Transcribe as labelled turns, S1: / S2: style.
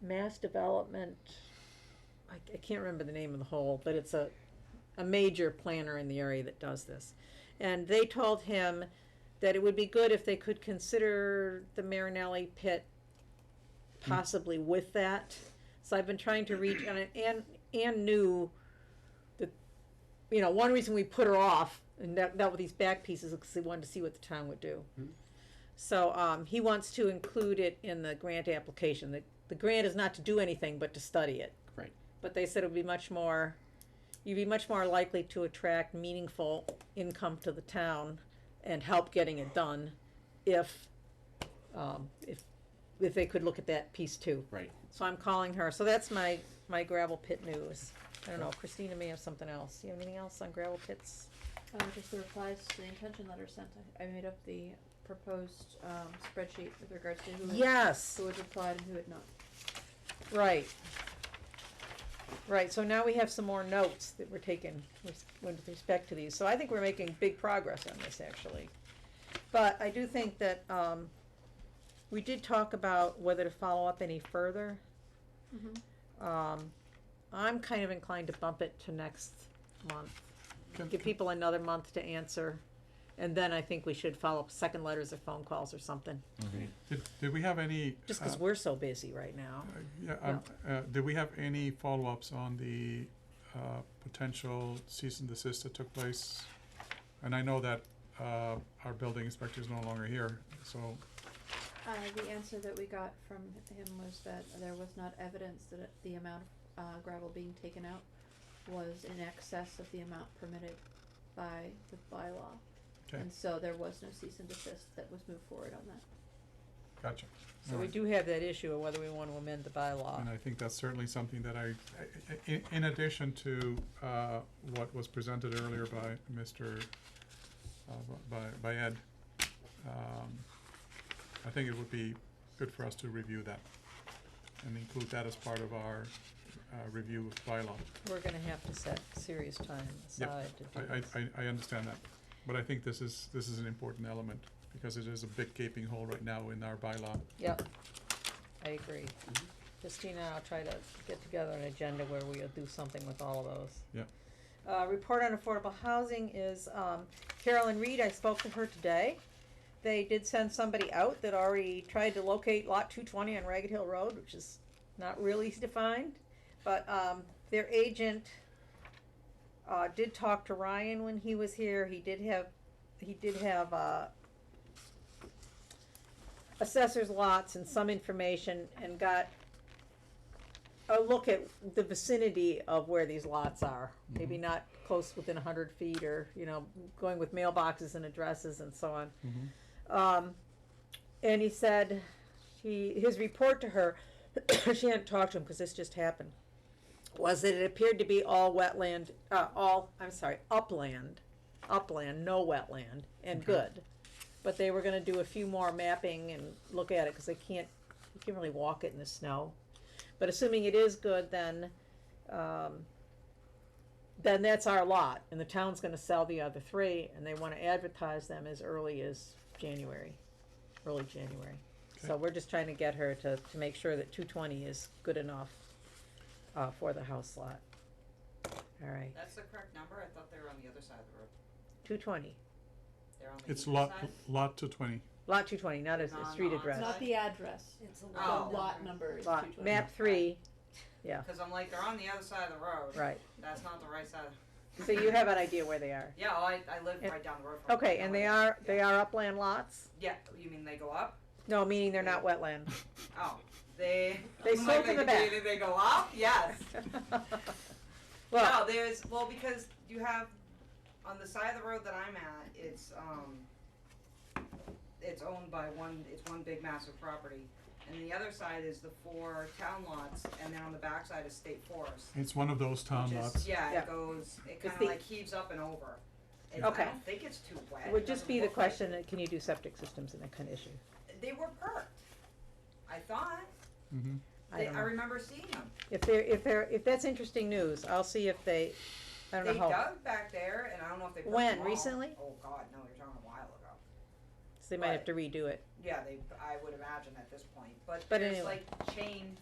S1: mass development,
S2: I, I can't remember the name of the hole, but it's a, a major planner in the area that does this. And they told him that it would be good if they could consider the Marinelli pit possibly with that. So I've been trying to reach, and, I- and, and knew that, you know, one reason we put her off, and that, that with these back pieces, because we wanted to see what the town would do. So, um, he wants to include it in the grant application. The, the grant is not to do anything, but to study it
S3: Right.
S2: but they said it would be much more, you'd be much more likely to attract meaningful income to the town and help getting it done if, um, if, if they could look at that piece too.
S3: Right.
S2: So I'm calling her, so that's my, my gravel pit news. I don't know, Christina may have something else. You have anything else on gravel pits?
S1: uh, just the replies to the intention letter sent, I, I made up the proposed, um, spreadsheet with regards to who had,
S2: Yes,
S1: who had replied and who had not.
S2: right. Right, so now we have some more notes that were taken with, with respect to these, so I think we're making big progress on this, actually. But I do think that, um, we did talk about whether to follow up any further. Um, I'm kind of inclined to bump it to next month.
S3: Can-
S2: Give people another month to answer, and then I think we should follow up second letters or phone calls or something,
S4: Did, did we have any?
S2: just
S4: uh,
S2: because we're so busy right now.
S4: uh, Yeah, um, uh, did we have any follow-ups on the, uh, potential cease and desist that took place? And I know that, uh, our building inspector is no longer here, so,
S1: Uh, the answer that we got from him was that there was not evidence that it- the amount of uh, gravel being taken out was in excess of the amount permitted by the bylaw.
S4: okay,
S1: And so there was no cease and desist that was moved forward on that.
S4: gotcha.
S2: So we
S4: Alright.
S2: do have that issue of whether we want to amend the bylaw.
S4: And I think that's certainly something that I, I- i- in addition to, uh, what was presented earlier by Mr., uh, by, by Ed, um, I think it would be good for us to review that and include that as part of our, uh, review of bylaw.
S2: We're gonna have to set serious time
S4: Yep,
S2: aside to do
S4: I,
S2: this.
S4: I, I, I understand that, but I think this is, this is an important element because it is a big gaping hole right now in our bylaw.
S2: Yep, I agree. Christina and I'll try to get together an agenda where we'll do something with all of those.
S4: Yep.
S2: Uh, report on affordable housing is, um, Carolyn Reed, I spoke to her today. They did send somebody out that already tried to locate lot two twenty on Ragged Hill Road, which is not really defined. But, um, their agent, uh, did talk to Ryan when he was here. He did have, he did have, uh, assessor's lots and some information and got a look at the vicinity of where these lots are. Maybe not close within a hundred feet or, you know, going with mailboxes and addresses and so on. Um, and he said, he, his report to her, she hadn't talked to him because this just happened, was that it appeared to be all wetland, uh, all, I'm sorry, upland, upland, no wetland, and good. But they were gonna do a few more mapping and look at it, cause they can't, you can't really walk it in the snow. But assuming it is good, then, um, then that's our lot, and the town's gonna sell the other three, and they wanna advertise them as early as January, early January. So
S4: Okay.
S2: we're just trying to get her to, to make sure that two twenty is good enough, uh, for the house lot. All right,
S5: That's the correct number, I thought they were on the other side of the road,
S2: two twenty,
S5: they're on the east
S4: It's
S5: side? Oh.
S4: lot, lot two twenty.
S2: lot two twenty, not a,
S5: No,
S2: a
S5: no,
S2: street
S5: I'm
S2: address.
S5: Not
S1: Not
S5: the
S1: the address,
S6: It's a
S1: the
S5: Oh.
S1: lot number is two
S2: Lot,
S1: twenty.
S2: map three,
S5: Cause I'm like, they're on the other side of the road.
S2: right,
S5: That's not the right side,
S2: so you have an idea where they are.
S5: yeah, oh, I, I live
S2: And-
S5: right down the road from. it.
S2: Okay,
S5: No
S2: and they
S5: idea.
S2: are, they
S5: Yeah.
S2: are upland lots?
S5: Yeah, you mean they go up?
S2: No, meaning they're not wetland.
S5: Oh, they.
S2: They
S5: I'm like,
S2: slope in the back.
S5: They, they go up, yes.
S2: Well,
S5: No, there's, well, because you have, on the side of the road that I'm at, it's, um, it's owned by one, it's one big massive property. And the other side is the four town lots, and then on the backside is state forest.
S4: It's one of those town
S5: which is-
S4: lots.
S5: Yeah,
S2: Yeah.
S5: it goes, it
S2: It's
S5: kinda
S2: the-
S5: like heaves up and over. It-
S2: Okay.
S5: I don't think it's too wet.
S2: it
S5: It
S2: would just
S5: doesn't
S2: be the
S5: look like-
S2: question, that can you do septic systems in that kind of issue?
S5: They were perked, I thought.
S4: Mm-hmm.
S2: I
S5: They,
S2: don't
S5: I
S2: know.
S5: remember seeing them.
S2: If they're, if they're, if that's interesting news, I'll see if they, I
S5: They
S2: don't know how,
S5: dug back there, and I don't know if they perked
S2: When?
S5: them all.
S2: Recently?
S5: Oh, God, no, you're talking a while ago.
S2: so they might have
S5: but-
S2: to redo it.
S5: Yeah, they, I would imagine at this point, but
S2: But
S5: there's
S2: anyway.
S5: like chain